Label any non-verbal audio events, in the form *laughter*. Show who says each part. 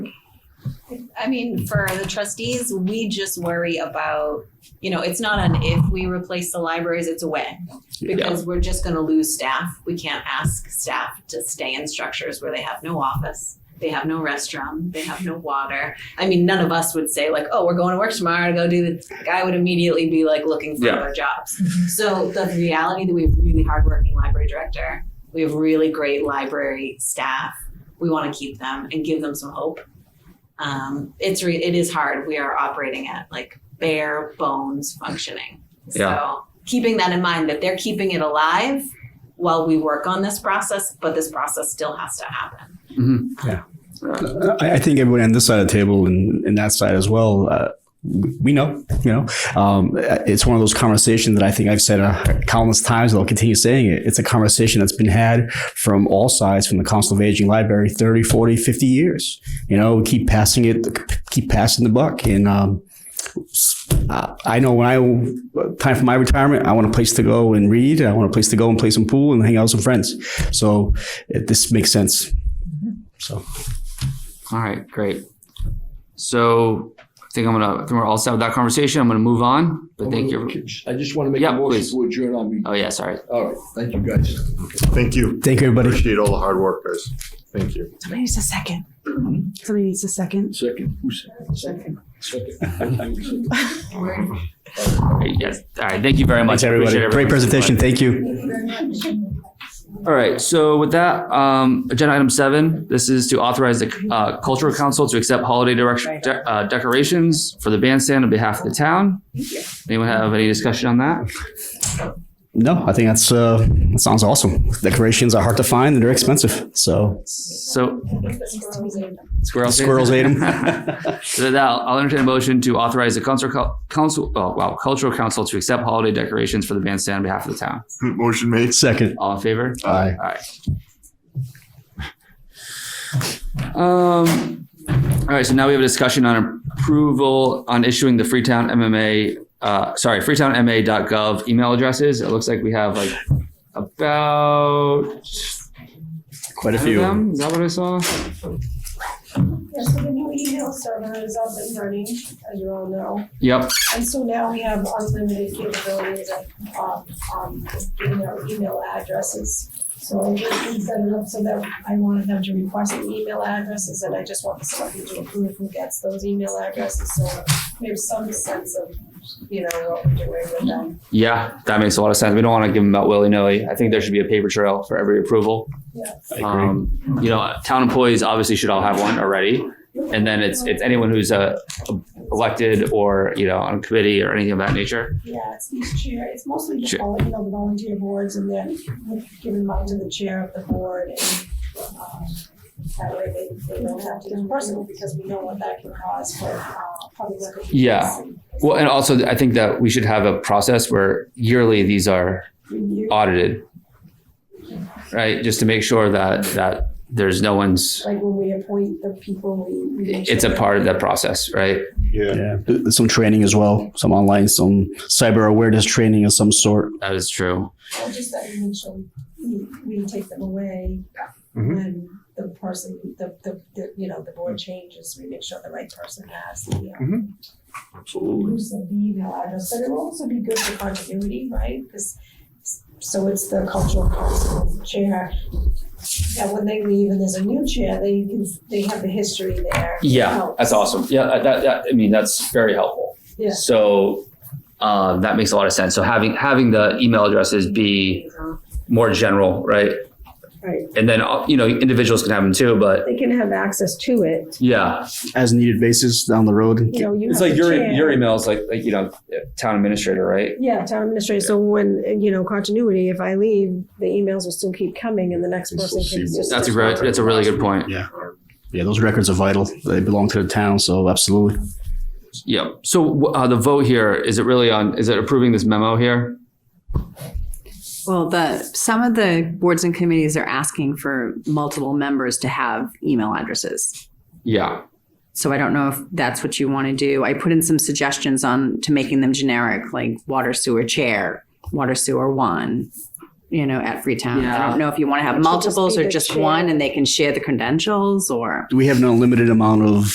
Speaker 1: I mean, for the trustees, we just worry about, you know, it's not an if we replace the libraries, it's a when. Because we're just gonna lose staff. We can't ask staff to stay in structures where they have no office. They have no restroom, they have no water. I mean, none of us would say like, oh, we're going to work tomorrow to go do this. Like, I would immediately be like looking for
Speaker 2: Yeah.
Speaker 1: other jobs. So the reality that we have really hardworking library director, we have really great library staff. We wanna keep them and give them some hope um, it's re- it is hard. We are operating at like bare bones functioning.
Speaker 2: Yeah.
Speaker 1: So keeping that in mind that they're keeping it alive while we work on this process, but this process still has to happen.
Speaker 3: I, I think everyone on this side of the table and, and that side as well, uh, we know, you know, um, it's one of those conversations that I think I've said uh, countless times, and I'll continue saying it. It's a conversation that's been had from all sides, from the Council of Aging Library, 30, 40, 50 years. You know, we keep passing it, keep passing the buck. And um, uh, I know when I, time for my retirement, I want a place to go and read. I want a place to go and play some pool and hang out with some friends. So it, this makes sense. So.
Speaker 2: All right, great. So I think I'm gonna, I think we're all set with that conversation. I'm gonna move on, but thank you.
Speaker 4: I just want to make
Speaker 2: Yeah,
Speaker 4: a motion
Speaker 2: please.
Speaker 4: to adjourn on me.
Speaker 2: Oh, yeah, sorry.
Speaker 4: All right, thank you, guys.
Speaker 5: Thank you.
Speaker 3: Thank you, everybody.
Speaker 5: Appreciate all the hard work, guys. Thank you.
Speaker 6: Somebody needs a second. Somebody needs a second.
Speaker 4: Second, who's second? Second. Second.
Speaker 2: Yes. All right, thank you very much.
Speaker 3: Thanks, everybody.
Speaker 2: Appreciate
Speaker 3: Great
Speaker 2: everyone's
Speaker 3: presentation.
Speaker 2: input.
Speaker 3: Thank you.
Speaker 2: All right, so with that, um, agenda item seven, this is to authorize the uh, cultural council to accept holiday direction, de- uh, decorations for the bandstand on behalf of the town. Anyone have any discussion on that?
Speaker 3: No, I think that's uh, that sounds awesome. Decorations are hard to find and they're expensive. So
Speaker 2: So. Squirrels.
Speaker 3: squirrels ate them.
Speaker 2: *laughs* So with that, I'll I'll entertain a motion to authorize the council, council, oh, wow, cultural council to accept holiday decorations for the bandstand on behalf of the town.
Speaker 5: Motion made.
Speaker 3: Second.
Speaker 2: All in favor?
Speaker 3: Aye.
Speaker 2: All right. Um, all right, so now we have a discussion on approval on issuing the Freetown MMA, uh, sorry, freetownma.gov email addresses. It looks like we have like about
Speaker 3: Quite a
Speaker 2: ten of
Speaker 3: few.
Speaker 2: them. Is that what I saw?
Speaker 7: Yes, so the new email server is up and running, as you all know.
Speaker 2: Yep,
Speaker 7: And so now we have unlimited capabilities of, um, um, email, email addresses. So I just we set it up so that I wanted them to request the email addresses and I just want the selectmen to approve who gets those email addresses. So there's some sense of, you know, what we're doing with them.
Speaker 2: yeah, that makes a lot of sense. We don't want to give them out willy-nilly. I think there should be a paper trail for every approval. Um, you know, town employees obviously should all have one already. And then it's, it's anyone who's uh, elected or, you know, on a committee or anything of that nature.
Speaker 7: Yeah, it's each chair, it's mostly just
Speaker 2: Chair.
Speaker 7: all, you know, the volunteer boards and then giving mine to the chair of the board and um, that way they, they don't have to do personal because we know what that can cause for uh, public record.
Speaker 2: Yeah. Well, and also I think that we should have a process where yearly these are
Speaker 7: Review,
Speaker 2: audited. Right? Just to make sure that, that there's no one's,
Speaker 7: like when we appoint the people, we. we make
Speaker 2: it's a
Speaker 7: sure
Speaker 2: part of
Speaker 7: that-
Speaker 2: that process, right?
Speaker 3: Yeah. There's some training as well. Some online, some cyber awareness training of some sort.
Speaker 2: That is true.
Speaker 7: Well, Just that we make sure we, we take them away
Speaker 5: Mhm.
Speaker 7: when the person, the, the, the, you know, the board changes, we make sure the right person has the uh,
Speaker 5: Absolutely.
Speaker 7: use the email address, but it'll also be good for continuity, right? Because, so it's the cultural council chair. That when they leave and there's a new chair, they can, they have the history there.
Speaker 2: Yeah, that's awesome. Yeah, uh, that, that, I mean, that's very helpful.
Speaker 7: Yeah.
Speaker 2: So, uh, that makes a lot of sense. So having, having the email addresses be more general, right?
Speaker 7: Right.
Speaker 2: And then, uh, you know, individuals can have them too, but
Speaker 7: They can have access to it,
Speaker 2: yeah. As
Speaker 3: As needed basis down the road.
Speaker 7: you know, you have
Speaker 2: It's
Speaker 7: the
Speaker 2: like your,
Speaker 7: chair.
Speaker 2: your email's like, like, you know, town administrator, right?
Speaker 7: Yeah, town administrator, so when, you know, continuity, if I leave, the emails will still keep coming and the next
Speaker 5: We'll
Speaker 7: person
Speaker 5: see
Speaker 7: can
Speaker 5: what-
Speaker 7: just.
Speaker 2: That's a great, that's a really good point.
Speaker 3: Yeah, those records are vital. They belong to the town. So absolutely.
Speaker 2: Yeah. So, uh, the vote here, is it really on, is it approving this memo here?
Speaker 8: Well, the, some of the boards and committees are asking for multiple members to have email addresses.
Speaker 2: Yeah.
Speaker 8: So I don't know if that's what you want to do. I put in some suggestions on to making them generic, like water sewer chair, water sewer one, you know, at Freetown. I
Speaker 2: Yeah.
Speaker 8: don't know if you want to have
Speaker 7: It should just
Speaker 8: multiples
Speaker 7: be
Speaker 8: or
Speaker 7: the
Speaker 8: just
Speaker 7: chair.
Speaker 8: one and they can share the credentials or.
Speaker 3: Do we have an unlimited amount of